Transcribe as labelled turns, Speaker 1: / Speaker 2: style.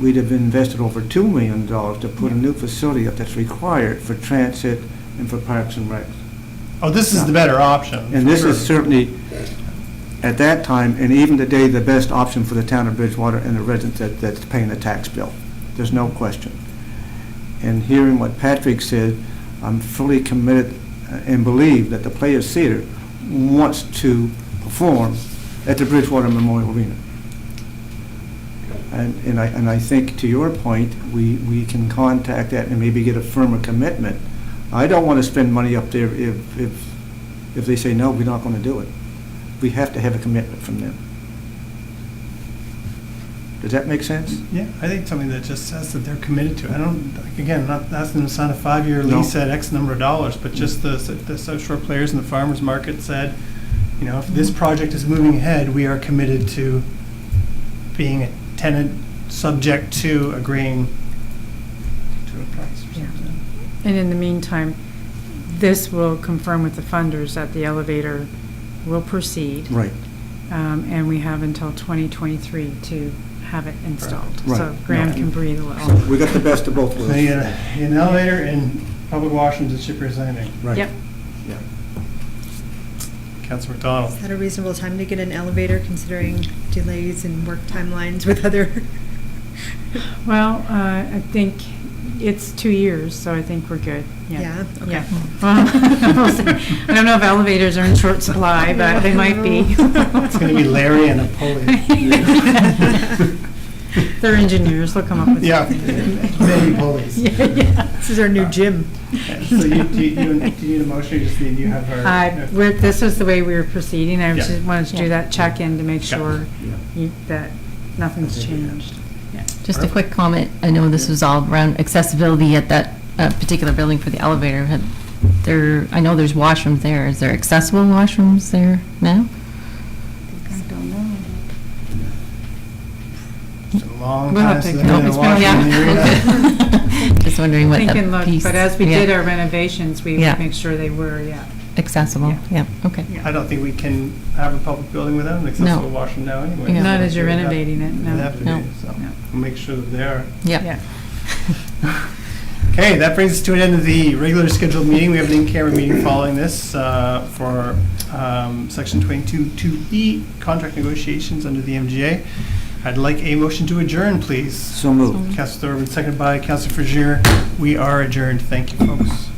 Speaker 1: we'd have invested over $2 million to put a new facility up that's required for transit and for parks and recs.
Speaker 2: Oh, this is the better option.
Speaker 1: And
Speaker 2: for
Speaker 1: this is
Speaker 2: sure.
Speaker 1: certainly, at that time, and even today, the best option for the town of Bridgewater and the residents that, that's paying the tax bill. There's no question. And hearing what Patrick said, I'm fully committed uh, and believe that the Players Theater wants to perform at the Bridgewater Memorial Arena. And, and I, and I think to your point, we, we can contact that and maybe get a firmer commitment. I don't want to spend money up there if, if if they say, no, we're not going to do it, we have to have a commitment from them. Does that make sense?
Speaker 2: Yeah, I think something that just says that they're committed to. it. I don't, like, again, not asking them to sign a five-year
Speaker 1: No.
Speaker 2: lease at X number of dollars, but just the, the South Shore players and the farmers market said, you know, if this project is moving ahead, we are committed to being a tenant, subject to agreeing to a price or
Speaker 3: Yeah.
Speaker 2: something.
Speaker 3: And in the meantime, this will confirm with the funders that the elevator will proceed,
Speaker 1: Right.
Speaker 3: um, and we have until 2023 to have it installed.
Speaker 1: Right.
Speaker 3: So Graham
Speaker 1: Right.
Speaker 3: can breathe a little.
Speaker 1: We got the best of both
Speaker 2: So
Speaker 1: worlds.
Speaker 2: you get a- an elevator in public washrooms at Shippers Landing.
Speaker 1: Right.
Speaker 3: Yep.
Speaker 1: Yeah.
Speaker 2: Council McDonald.
Speaker 4: Is that a reasonable time to get an elevator considering delays and work timelines with other?
Speaker 3: Well, uh, I think it's two years, so I think we're good.
Speaker 4: Yeah, okay.
Speaker 3: Yeah. Well, we'll see. I don't know if elevators are in short supply, but they might be.
Speaker 2: It's gonna be Larry and a pulley.
Speaker 3: They're engineers, they'll come up with
Speaker 2: Yeah,
Speaker 3: something.
Speaker 2: many pulleys.
Speaker 3: Yeah, yeah.
Speaker 4: This is our new gym.
Speaker 2: So you, do you, do you need a motion, or you just need, you have our?
Speaker 3: I, we're, this is the way we were proceeding, I
Speaker 2: Yeah.
Speaker 3: just wanted to do that check-in to make
Speaker 2: Yeah.
Speaker 3: sure
Speaker 1: Yeah.
Speaker 3: you- that nothing's changed.
Speaker 5: Just a quick comment, I know this was all around accessibility at that uh, particular building for the elevator. Had There, I know there's washrooms there, is there accessible washrooms there now?
Speaker 2: It's a long
Speaker 3: We'll
Speaker 2: time
Speaker 3: have to-
Speaker 2: since I've
Speaker 3: Nope,
Speaker 2: been
Speaker 3: it's
Speaker 2: to
Speaker 3: been a
Speaker 2: Washington
Speaker 3: while.
Speaker 2: area.
Speaker 5: Okay. Just wondering what
Speaker 3: Think
Speaker 5: that
Speaker 3: and look,
Speaker 5: piece.
Speaker 3: but as we
Speaker 5: yeah,
Speaker 3: did our renovations, we
Speaker 5: Yeah.
Speaker 3: would make sure they were, yeah.
Speaker 5: Accessible, yeah, okay.
Speaker 2: I don't think we can have a public building without an accessible washroom now anyway.
Speaker 5: Yeah.
Speaker 2: so
Speaker 3: Not as you're
Speaker 2: it would have-
Speaker 3: renovating it,
Speaker 2: would
Speaker 3: no.
Speaker 2: have to be,
Speaker 5: No.
Speaker 2: so
Speaker 3: No.
Speaker 2: we'll Make sure that they are.
Speaker 5: Yeah.
Speaker 2: Okay, that brings us to an end of the regular scheduled meeting. We have an in-camera meeting following this uh, for um, Section 22-2E, contract negotiations under the MGA. I'd like a motion to adjourn, please.
Speaker 1: So moved.
Speaker 2: Counselor Thorburn, seconded by Counselor Frazier. We are adjourned. Thank you, folks.